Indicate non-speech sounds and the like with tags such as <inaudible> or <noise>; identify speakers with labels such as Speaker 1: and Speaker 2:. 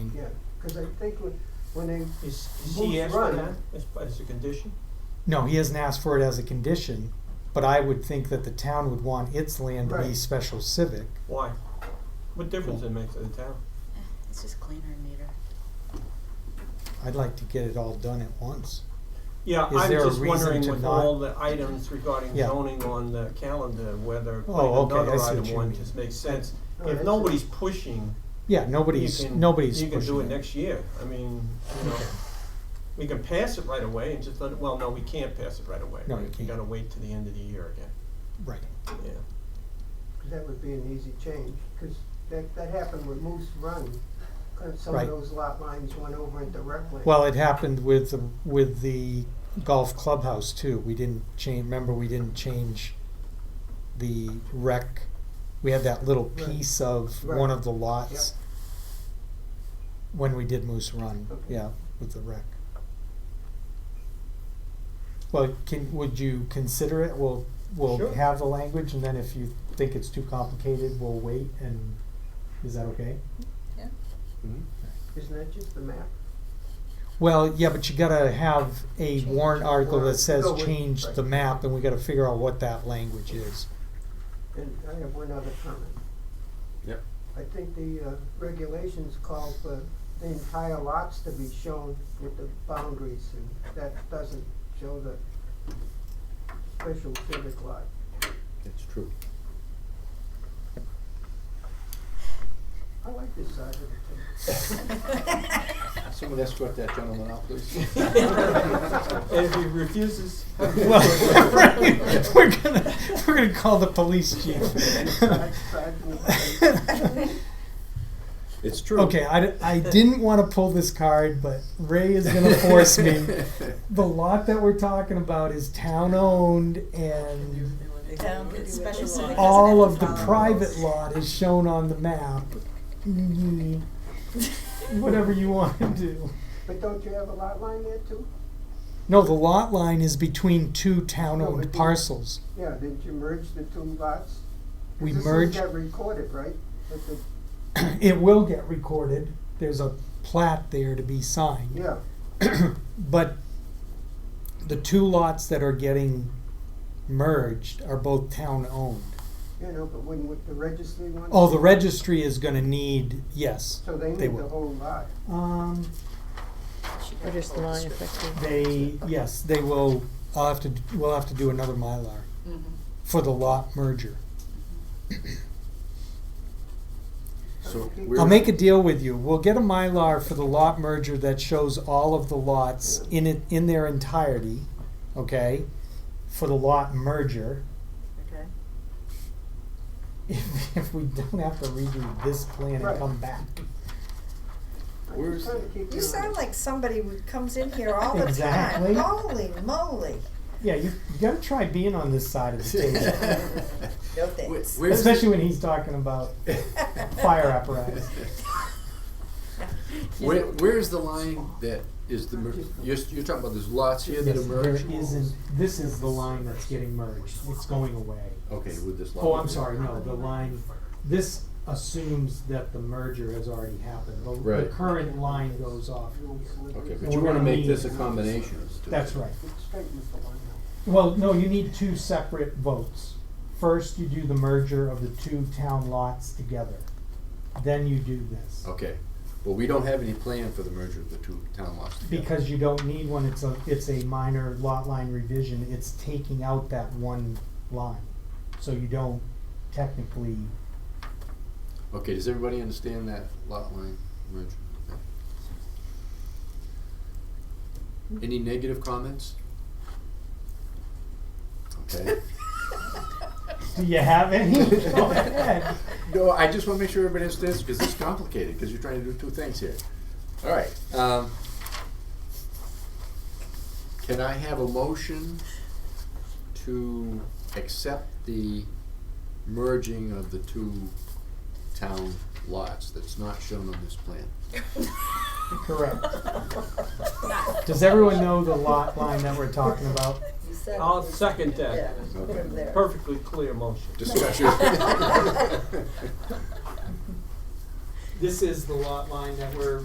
Speaker 1: Cause I think when, when they,
Speaker 2: Is, is
Speaker 1: Who's
Speaker 2: he asked for
Speaker 1: running?
Speaker 2: that as, as a condition?
Speaker 3: No, he hasn't asked for it as a condition, but I would think that the town would want its land to be
Speaker 1: Right.
Speaker 3: special civic.
Speaker 2: Why? What difference it make to the town?
Speaker 4: It's just cleaner and neater.
Speaker 3: I'd like to get it all done at once.
Speaker 2: Yeah,
Speaker 3: Is
Speaker 2: I'm
Speaker 3: there a
Speaker 2: just wondering
Speaker 3: reason to
Speaker 2: with
Speaker 3: not-
Speaker 2: all the items regarding
Speaker 3: Yeah.
Speaker 2: zoning on the calendar, whether
Speaker 3: Oh,
Speaker 2: like
Speaker 3: okay, I
Speaker 2: another
Speaker 3: see what
Speaker 2: item
Speaker 3: you
Speaker 2: one
Speaker 3: mean.
Speaker 2: just makes sense.
Speaker 1: No,
Speaker 2: If
Speaker 1: that's-
Speaker 2: nobody's pushing,
Speaker 3: Yeah,
Speaker 2: you
Speaker 3: nobody's
Speaker 2: can,
Speaker 3: nobody's
Speaker 2: you can do
Speaker 3: pushing
Speaker 2: it next year. I mean, you know,
Speaker 3: Okay.
Speaker 2: we can pass it right away and just let, it. well, no, we can't pass it right away.
Speaker 3: No,
Speaker 2: right?
Speaker 3: you
Speaker 2: We
Speaker 3: can't.
Speaker 2: gotta wait to the end of the year again,
Speaker 3: Right.
Speaker 2: yeah.
Speaker 1: that would be an easy change, cause that, that happened with Moose Run. 'Cause Some of
Speaker 3: Right.
Speaker 1: those lot lines went over into rec land.
Speaker 3: Well, it happened with the, with the golf clubhouse too. We didn't change. Remember, we didn't change the rec. We had that little
Speaker 1: Right.
Speaker 3: piece of
Speaker 1: Right.
Speaker 3: one of the lots when we did Moose Run.
Speaker 1: Okay.
Speaker 3: Yeah, with the rec. Well, can would you consider it? We'll we'll
Speaker 2: Sure.
Speaker 3: have the language, and then if you think it's too complicated, we'll wait. And is that okay?
Speaker 4: Yeah.
Speaker 3: Hmm?
Speaker 1: Isn't that just the map?
Speaker 3: Well, yeah, but you gotta have a
Speaker 4: Change.
Speaker 3: warrant article that says
Speaker 1: Go with-
Speaker 3: change the
Speaker 1: right.
Speaker 3: map, and we gotta figure out what that language is.
Speaker 1: And I have one other comment.
Speaker 5: Yep.
Speaker 1: I think the uh, regulations call for the entire lots to be shown with the boundaries, and that doesn't show the special civic lot.
Speaker 5: That's true.
Speaker 1: I like this side of the
Speaker 5: <laughs> Someone escort that gentleman out, please.
Speaker 2: <laughs> And if he refuses.
Speaker 3: Well, <laughs> right, we're gonna, we're gonna call the police chief. <laughs>
Speaker 1: table. I- I think-
Speaker 5: <laughs> It's true.
Speaker 3: Okay, I, di- I didn't wanna pull this card, but Ray is gonna force
Speaker 5: <laughs>
Speaker 3: me. The lot that we're talking about is town-owned, and
Speaker 4: special law.
Speaker 3: all of the private lot is shown on the map. Mhm.
Speaker 4: <laughs>
Speaker 3: Whatever you wanna do.
Speaker 1: But don't you have a lot line there too?
Speaker 3: No, the lot line is between two
Speaker 1: No, but
Speaker 3: town-owned
Speaker 1: you-
Speaker 3: parcels.
Speaker 1: Yeah, didn't you merge the two lots? 'Cause
Speaker 3: We
Speaker 1: this
Speaker 3: merged,
Speaker 1: This got recorded, right? But the-
Speaker 3: <clears throat> it will get recorded, there's a plat there to be signed.
Speaker 1: Yeah,
Speaker 3: But the two lots that are getting merged are both town-owned.
Speaker 1: you know, but when with the registry one?
Speaker 3: Oh, the registry is gonna need, yes,
Speaker 1: So
Speaker 3: they
Speaker 1: they need the
Speaker 3: will.
Speaker 1: whole lot.
Speaker 3: Um,
Speaker 6: Or just the line affected?
Speaker 3: they, yes, they will, I'll have to, we'll have to do another Mylar
Speaker 4: Mm-hmm.
Speaker 3: for the lot merger.
Speaker 5: So
Speaker 3: I'll
Speaker 5: we're-
Speaker 3: make
Speaker 5: <laughs>
Speaker 3: a deal with you. We'll get a Mylar for the lot merger that shows all of the lots in it, in their entirety, okay? For the lot merger. <laughs>
Speaker 4: Okay.
Speaker 3: If, if we don't have to redo this plan and
Speaker 1: Right.
Speaker 3: come back.
Speaker 1: I'm
Speaker 5: Where's
Speaker 1: just trying to keep
Speaker 6: You
Speaker 1: on-
Speaker 6: sound like somebody who comes in here all the
Speaker 3: Exactly.
Speaker 6: time. Holy moly.
Speaker 3: Yeah, you, you gotta try being on this side
Speaker 5: <laughs>
Speaker 3: of the table,
Speaker 6: No
Speaker 5: Wh- where's
Speaker 6: thanks.
Speaker 5: the-
Speaker 3: especially when he's talking about fire
Speaker 5: <laughs>
Speaker 3: apparatus.
Speaker 5: Where, where's the line that is the, mer- you're, you're talking about there's lots here that
Speaker 3: Yes, there
Speaker 5: emerge?
Speaker 3: isn't, this is the line that's getting merged. It's going away.
Speaker 5: Okay, with this lot.
Speaker 3: Oh, I'm sorry, no, the line, this assumes that the merger has already happened. The- The
Speaker 5: Right.
Speaker 3: current line goes off.
Speaker 5: Okay, but
Speaker 3: Well,
Speaker 5: you
Speaker 3: we're
Speaker 5: wanna
Speaker 3: gonna
Speaker 5: make this a
Speaker 3: need-
Speaker 5: combination.
Speaker 3: That's right.
Speaker 1: It's straight with the one now.
Speaker 3: Well, no, you need two separate votes. First, you do the merger of the two town lots together. Then you do this.
Speaker 5: Okay, well, we don't have any plan for the merger of the two town lots together.
Speaker 3: Because you don't need one, it's a, it's a minor lot line revision, it's taking out that one line. So you don't technically,
Speaker 5: Okay, does everybody understand that lot line merger? Okay. Any negative comments? Okay.
Speaker 3: do you have any? <laughs> Go ahead.
Speaker 5: No, I just wanna make sure everybody understands, because it's complicated, because you're trying to do two things here. All right, um, can I have a motion to accept the merging of the two town lots that's not shown on this plan?
Speaker 3: Correct.
Speaker 4: <laughs>
Speaker 3: Does everyone know the lot line that we're talking about?
Speaker 6: You sound-
Speaker 2: I'll second that.
Speaker 6: Yeah, from there.
Speaker 2: Perfectly clear motion.
Speaker 5: Discussion.
Speaker 3: This is the lot line that we're